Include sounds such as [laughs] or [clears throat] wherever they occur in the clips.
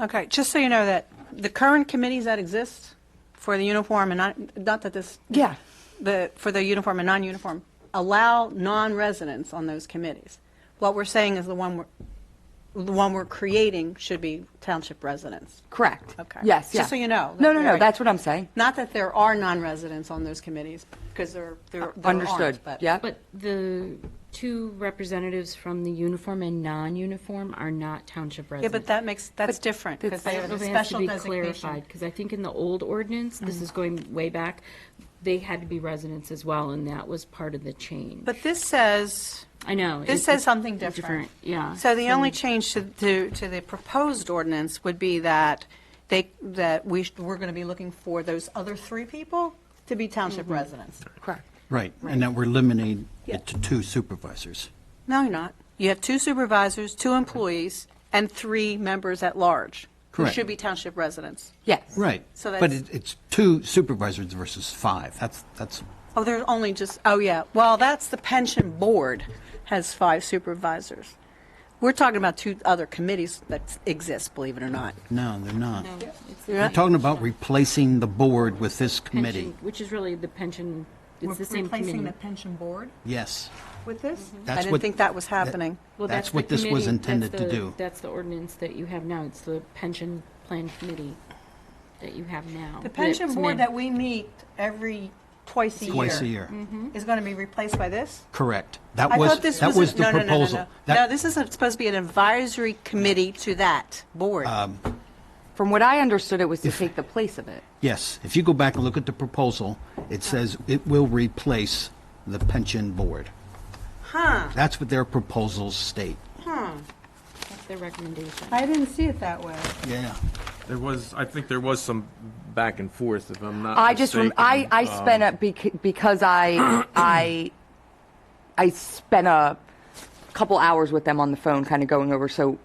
Okay, just so you know that the current committees that exist for the uniform and not, not that this, Yeah. the, for the uniform and non-uniform, allow non-residents on those committees. What we're saying is the one we're, the one we're creating should be township residents. Correct. Okay. Yes, Just yeah. so you know. No, no, no, Right. that's what I'm saying. Not that there are non-residents on those committees, because there, there there Understood. aren't, but. Yeah. But the two representatives from the uniform and non-uniform are not township Yeah, but residents. that makes, that's different, because I they have don't know a if it has to special be designation. Mm-hmm. clarified, because I think in the old ordinance, this is going way back, they had to be residents as well, and that was part of the change. But this says, I know. This it- says it's something different. Yeah. So the only change to, to, to the proposed ordinance would be that they, that we, sh- we're going to be looking for those other three people to be township Mm-hmm. residents. Correct. Right, and that we're limiting Yeah. it to two supervisors. No, you're not. You have two supervisors, two employees, and three members at large. Who Correct. should be township residents. Yes. Right. So But that's- it- it's two supervisors versus five. That's, that's, Oh, there's only just, oh, yeah. Well, that's the pension board has five supervisors. We're talking about two other committees that exist, believe it or not. no, they're not. It's the We're talking about replacing the board with this committee. pension- Which is really the pension, it's the same committee. pension board Yes. with this? I That's didn't what- think that was happening. Well, That's the what this committee- was that's intended to the- do. That's the ordinance that you have now. It's the pension plan committee that you have now. The pension board that we meet every, twice a year. Mm-hmm. Twice a year. Is going to be replaced by this? Correct. That I was, thought this that was, a- was the no, no, no, no, proposal. no. No, That- this is supposed to be an advisory committee to that board. From what I understood, it was to take the place of it. Yes, if you go back and look at the proposal, it says it will replace the pension board. Huh. That's what their proposals state. That's their recommendation. I didn't see it that way. Yeah. There was, I think there was some back and forth, if I'm not I just, rem- mistaken. I, I Um, spent up bec- because [clears throat] I, I, I spent a couple hours with them on the phone, kind of going over, so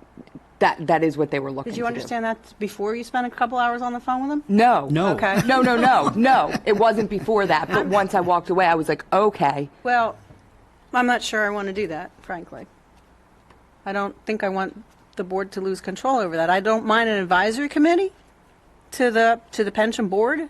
that, that is what they were looking to Did do. you understand that before you spent a couple hours on the phone with them? No. No. Okay. No, no, [laughs] no, no. It wasn't before that, but once I walked away, I was like, okay. Well, I'm not sure I want to do that, frankly. I don't think I want the board to lose control over that. I don't mind an advisory committee to the, to the pension board.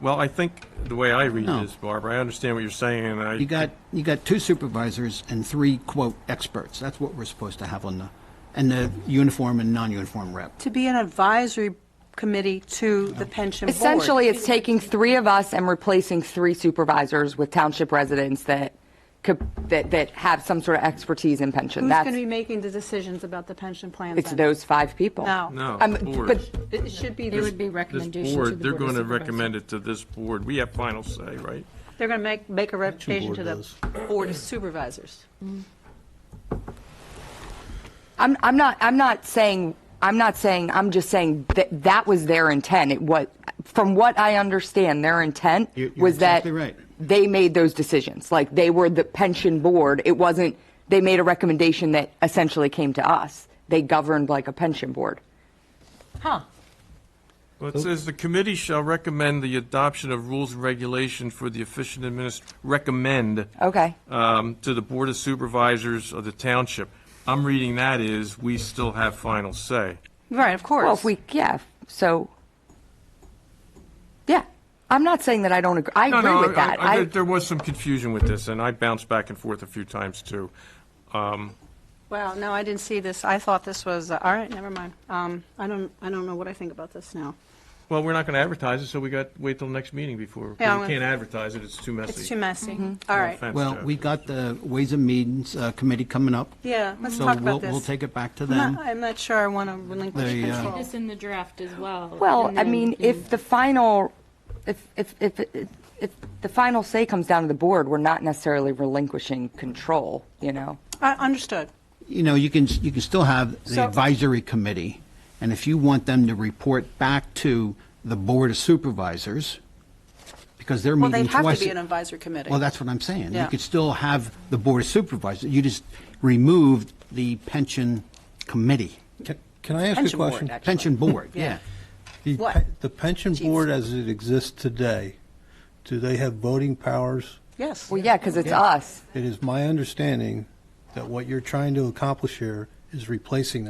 Well, I think the way I read No. this, Barbara, I understand what you're saying, and I. You got, you got two supervisors and three, quote, experts. That's what we're supposed to have on the, and the uniform and non-uniform rep. To be an advisory committee to the pension board. Essentially, it's taking three of us and replacing three supervisors with township residents that could, that, that have some sort of expertise in pension. Who's going That's, to be making the decisions about the pension plan? it's then? those five people. No. No, Um, boards. but It should be, It would the- be This recommendation to the board, they're Board of going to Supervisors. recommend it to this board. We have final say, right? they're going to make, make a recommendation to the board of supervisors. I'm, I'm not, I'm not saying, I'm not saying, I'm just saying that that was their intent. It was, from what I understand, their intent You- you're was that exactly right. they made those decisions. Like they were the pension board. It wasn't, they made a recommendation that essentially came to us. They governed like a pension board. Huh. Well, it says the committee shall recommend the adoption of rules and regulation for the efficient adminis, recommend Okay. um, to the Board of Supervisors of the township. I'm reading that is, we still have final say. Right, of course. Well, if we, yeah, so, yeah. I'm not saying that I don't agree. I No, agree no, with I- that. I- I- there- There was some confusion with this, and I bounced back and forth a few times, too. Um, Wow, no, I didn't see this. I thought this was, uh, all right, never mind. Um, I don't, I don't know what I think about this now. Well, we're not going to advertise it, so we got, wait till the next meeting before, Yeah, I'm we gonna- can't advertise it, it's too messy. It's too messy. All Mm-hmm. No right. offense, Well, Jeff. we got the Ways and Means uh, Committee coming up. Yeah, let's talk about So we'll, this. we'll take it back to I'm them. not- I'm not sure I want to relinquish They, uh, control. This in the draft as well. Well, and I then mean, we if the final, if, if, if, if the final say comes down to the board, we're not necessarily relinquishing control, you know? I Understood. You know, you can, you can still have the So- advisory committee, and if you want them to report back to the Board of Supervisors, because they're Well, meeting they'd have twice. to be an advisory committee. Well, that's what I'm saying. Yeah. You could still have the Board of Supervisors. You just removed the pension committee. Can- Can I ask a Pension board, question? actually. Pension board, Yeah. yeah. The What? pe- The pension Jeez. board as it exists today, do they have voting powers? Yes. Well, yeah, because it's Yeah. us. It is my understanding that what you're trying to accomplish here is is replacing